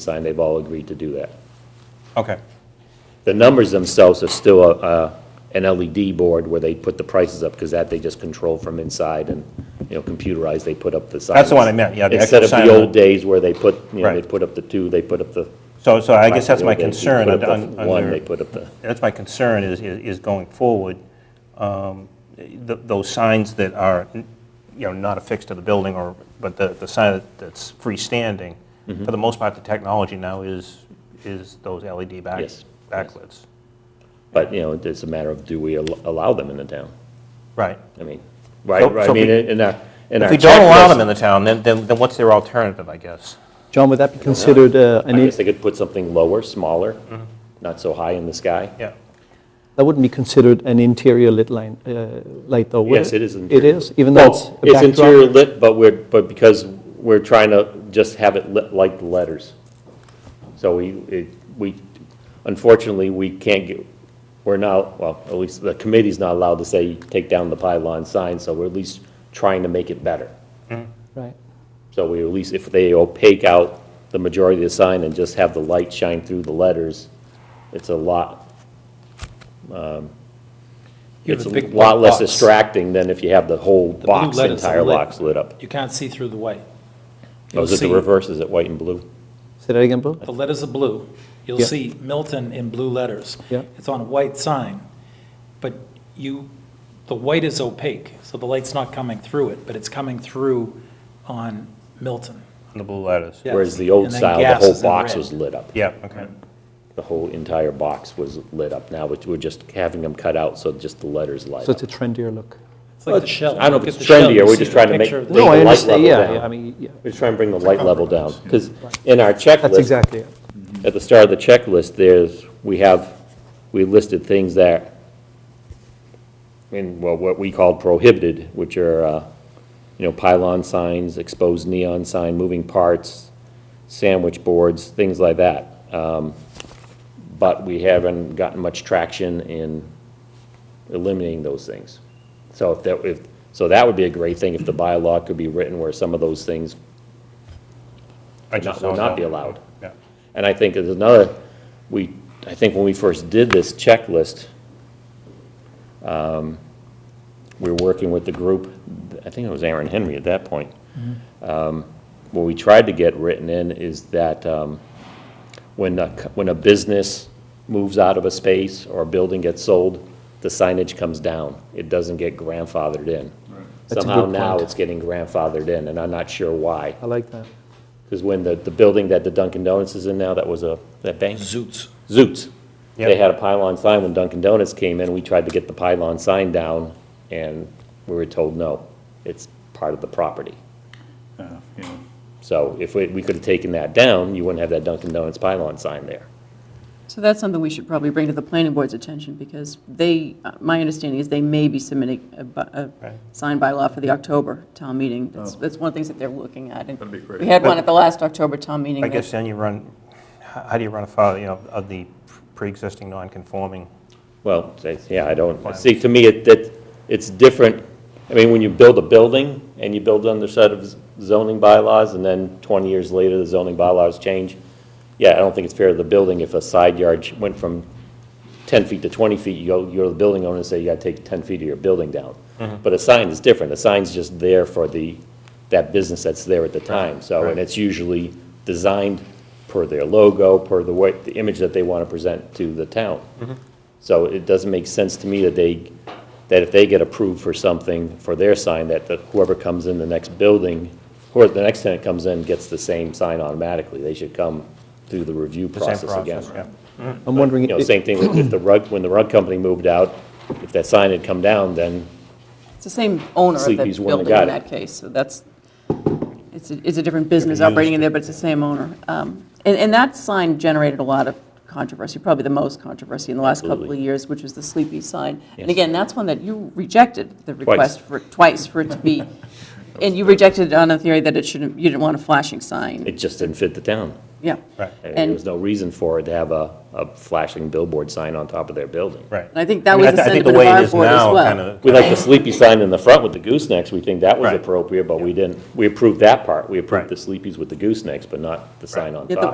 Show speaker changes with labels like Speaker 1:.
Speaker 1: sign, they've all agreed to do that.
Speaker 2: Okay,
Speaker 1: The numbers themselves are still a- a, an LED board where they put the prices up, because that they just control from inside and, you know, computerized, they put up the sign.
Speaker 2: That's the one I meant, yeah, the
Speaker 1: Instead of
Speaker 2: actual
Speaker 1: the
Speaker 2: sign.
Speaker 1: old days where they put, you know, they
Speaker 2: Right.
Speaker 1: put up the two, they put up the.
Speaker 2: so, so I guess that's my
Speaker 1: Back in the old days,
Speaker 2: concern,
Speaker 1: They put up
Speaker 2: un-
Speaker 1: the one, they
Speaker 2: under,
Speaker 1: put up the,
Speaker 2: that's my concern is, is is going forward, um, th- those signs that are, you know, not affixed to the building or, but the, the sign that- that's freestanding,
Speaker 1: Mm-hmm.
Speaker 2: for the most part, the technology now is, is those LED back,
Speaker 1: Yes, yes.
Speaker 2: backlights.
Speaker 1: but, you know, it's a matter of do we al- allow them in the town?
Speaker 2: Right.
Speaker 1: I mean,
Speaker 2: So-
Speaker 1: right, right,
Speaker 2: so
Speaker 1: I mean,
Speaker 2: if we-
Speaker 1: in our, in our.
Speaker 2: If we don't allow them
Speaker 1: checklist,
Speaker 2: in the town, then, then then what's their alternative, I guess?
Speaker 3: John, would that be considered uh, an,
Speaker 1: I guess
Speaker 3: in-
Speaker 1: they could put something lower, smaller,
Speaker 2: Mm-hmm.
Speaker 1: not so high in the sky.
Speaker 2: Yeah.
Speaker 3: that wouldn't be considered an interior lit line, uh, light though, would it?
Speaker 1: Yes, it is
Speaker 3: It
Speaker 1: interior.
Speaker 3: is, even though it's
Speaker 1: Well,
Speaker 3: a
Speaker 1: it's interior
Speaker 3: backdrop?
Speaker 1: lit, but we're, but because we're trying to just have it lit like the letters. So we, it, we, unfortunately, we can't get, we're not, well, at least the committee's not allowed to say, take down the pylon sign, so we're at least trying to make it better.
Speaker 3: Right.
Speaker 1: So we at least, if they opaque out the majority of the sign and just have the light shine through the letters, it's a lot, um,
Speaker 4: You have
Speaker 1: it's
Speaker 4: a
Speaker 1: a
Speaker 4: big
Speaker 1: lot
Speaker 4: black
Speaker 1: less
Speaker 4: box.
Speaker 1: distracting than if you have the whole
Speaker 4: blue
Speaker 1: box, the
Speaker 4: letters are
Speaker 1: entire
Speaker 4: lit.
Speaker 1: box lit up.
Speaker 4: You can't see through the white.
Speaker 1: Oh, is
Speaker 4: You'll
Speaker 1: it the
Speaker 4: see-
Speaker 1: reverse? Is it white and blue?
Speaker 3: Say that again, Bill?
Speaker 4: The letters are blue. You'll
Speaker 3: Yeah.
Speaker 4: see Milton in blue letters.
Speaker 3: Yeah.
Speaker 4: It's on a white sign, but you, the white is opaque, so the light's not coming through it, but it's coming through on Milton.
Speaker 2: On the blue letters?
Speaker 4: Yeah.
Speaker 1: Whereas the old
Speaker 4: And then
Speaker 1: style, the
Speaker 4: gas
Speaker 1: whole
Speaker 4: is in
Speaker 1: box
Speaker 4: red.
Speaker 1: was lit up.
Speaker 2: Yeah, okay.
Speaker 1: The whole entire box was lit up. Now, we're we're just having them cut out, so just the letters light
Speaker 3: So
Speaker 1: up.
Speaker 3: it's a trendier look.
Speaker 4: It's like the shell.
Speaker 1: I don't know
Speaker 4: Look
Speaker 1: if
Speaker 4: at
Speaker 1: it's
Speaker 4: the shell,
Speaker 1: trendy,
Speaker 4: you
Speaker 1: or we're
Speaker 4: see
Speaker 1: just
Speaker 4: the
Speaker 1: trying to make,
Speaker 4: picture
Speaker 1: bring
Speaker 4: of
Speaker 1: the
Speaker 4: the-
Speaker 3: No, I
Speaker 1: light
Speaker 3: understand,
Speaker 1: level
Speaker 3: yeah, yeah, I
Speaker 1: down.
Speaker 3: mean, yeah,
Speaker 1: We're just trying to bring the light level down. Because in our checklist.
Speaker 3: that's exactly it.
Speaker 1: at the start of the checklist, there's, we have, we listed things that, in, well, what we call prohibited, which are, uh, you know, pylon signs, exposed neon sign, moving parts, sandwich boards, things like that. Um, But we haven't gotten much traction in eliminating those things. So if that, if, so that would be a great thing if the bylaw could be written where some of those things
Speaker 2: I
Speaker 1: Would not-
Speaker 2: just
Speaker 1: would
Speaker 2: saw
Speaker 1: not
Speaker 2: that.
Speaker 1: be allowed.
Speaker 2: Yeah.
Speaker 1: And I think there's another, we, I think when we first did this checklist, um, we were working with the group, I think it was Aaron Henry at that point.
Speaker 3: Mm-hmm.
Speaker 1: Um, What we tried to get written in is that um, when, a c- when a business moves out of a space or a building gets sold, the signage comes down. It doesn't get grandfathered in.
Speaker 3: That's a
Speaker 1: Somehow
Speaker 3: good
Speaker 1: now
Speaker 3: point.
Speaker 1: it's getting grandfathered in, and I'm not sure why.
Speaker 3: I like that.
Speaker 1: Because when the, the building that the Dunkin' Donuts is in now, that was a, that bank?
Speaker 4: Zoots.
Speaker 1: Zoots. They
Speaker 2: Yep.
Speaker 1: had a pylon sign when Dunkin' Donuts came in, we tried to get the pylon sign down, and we were told, no, it's part of the property.
Speaker 5: Uh, you know,
Speaker 1: So if we, we could have taken that down, you wouldn't have that Dunkin' Donuts pylon sign there.
Speaker 6: So that's something we should probably bring to the planning board's attention, because they, uh, my understanding is they may be submitting a bu- a
Speaker 2: Right.
Speaker 6: sign by law for the October town meeting. That's that's one of the things that they're looking at. and
Speaker 5: Oh. That'd be great.
Speaker 6: We had one at the last October town meeting.
Speaker 2: I
Speaker 6: that-
Speaker 2: guess then you run, how how do you run afoul, you know, of the pre-existing non-conforming?
Speaker 1: Well, say- yeah, I don't, see, to me, it, that, it's different, I mean, when you build a building, and you build under set of zoning bylaws, and then twenty years later, the zoning bylaws change, yeah, I don't think it's fair to the building if a side yard sh- went from ten feet to twenty feet, you go, you go to the building owner and say, you gotta take ten feet of your building down.
Speaker 2: Mm-hmm.
Speaker 1: But a sign is different, a sign's just there for the, that business that's there at the time, so, and
Speaker 2: right.
Speaker 1: it's usually designed per their logo, per the way, the image that they wanna present to the town.
Speaker 2: Mm-hmm.
Speaker 1: So it doesn't make sense to me that they, that if they get approved for something for their sign, that the- whoever comes in the next building, or the next tenant comes in, gets the same sign automatically. They should come through the review
Speaker 2: the same
Speaker 1: process again.
Speaker 2: yeah.
Speaker 3: I'm wondering,
Speaker 1: You know,
Speaker 3: i-
Speaker 1: same thing with if the rug, when the rug company moved out, if that sign had come down, then
Speaker 6: It's the same owner of the
Speaker 1: Sleepy's one that
Speaker 6: building
Speaker 1: got
Speaker 6: in
Speaker 1: it.
Speaker 6: that case, so that's, it's, a- it's a different business operating in there, but it's the same owner. Um, And, and that sign generated a lot of controversy, probably the most controversy in the last couple of
Speaker 1: Absolutely.
Speaker 6: years, which was the Sleepy sign.
Speaker 1: Yes.
Speaker 6: And again, that's one that you rejected, the
Speaker 1: Twice.
Speaker 6: request for, twice for it to be, and you rejected it on a theory that it shouldn't, you didn't want a flashing
Speaker 1: it
Speaker 6: sign,
Speaker 1: just didn't fit the town.
Speaker 6: yeah.
Speaker 2: Right,
Speaker 1: I mean, There
Speaker 6: And-
Speaker 1: was no reason for it to have a, a flashing billboard sign on top of their building.
Speaker 2: right.
Speaker 6: And I think that
Speaker 2: mean,
Speaker 6: was the
Speaker 2: th- I think
Speaker 6: sentiment of
Speaker 2: way it
Speaker 6: our
Speaker 2: is
Speaker 6: board as
Speaker 2: now
Speaker 6: well.
Speaker 2: kinda-
Speaker 1: We like the sleepy sign in the front with the goosenecks, we think that was
Speaker 2: Right.
Speaker 1: appropriate, but we didn't, we approved that part. We approved
Speaker 2: Right.
Speaker 1: the sleepies with the goosenecks, but not the sign on
Speaker 6: Yeah, the-
Speaker 1: top.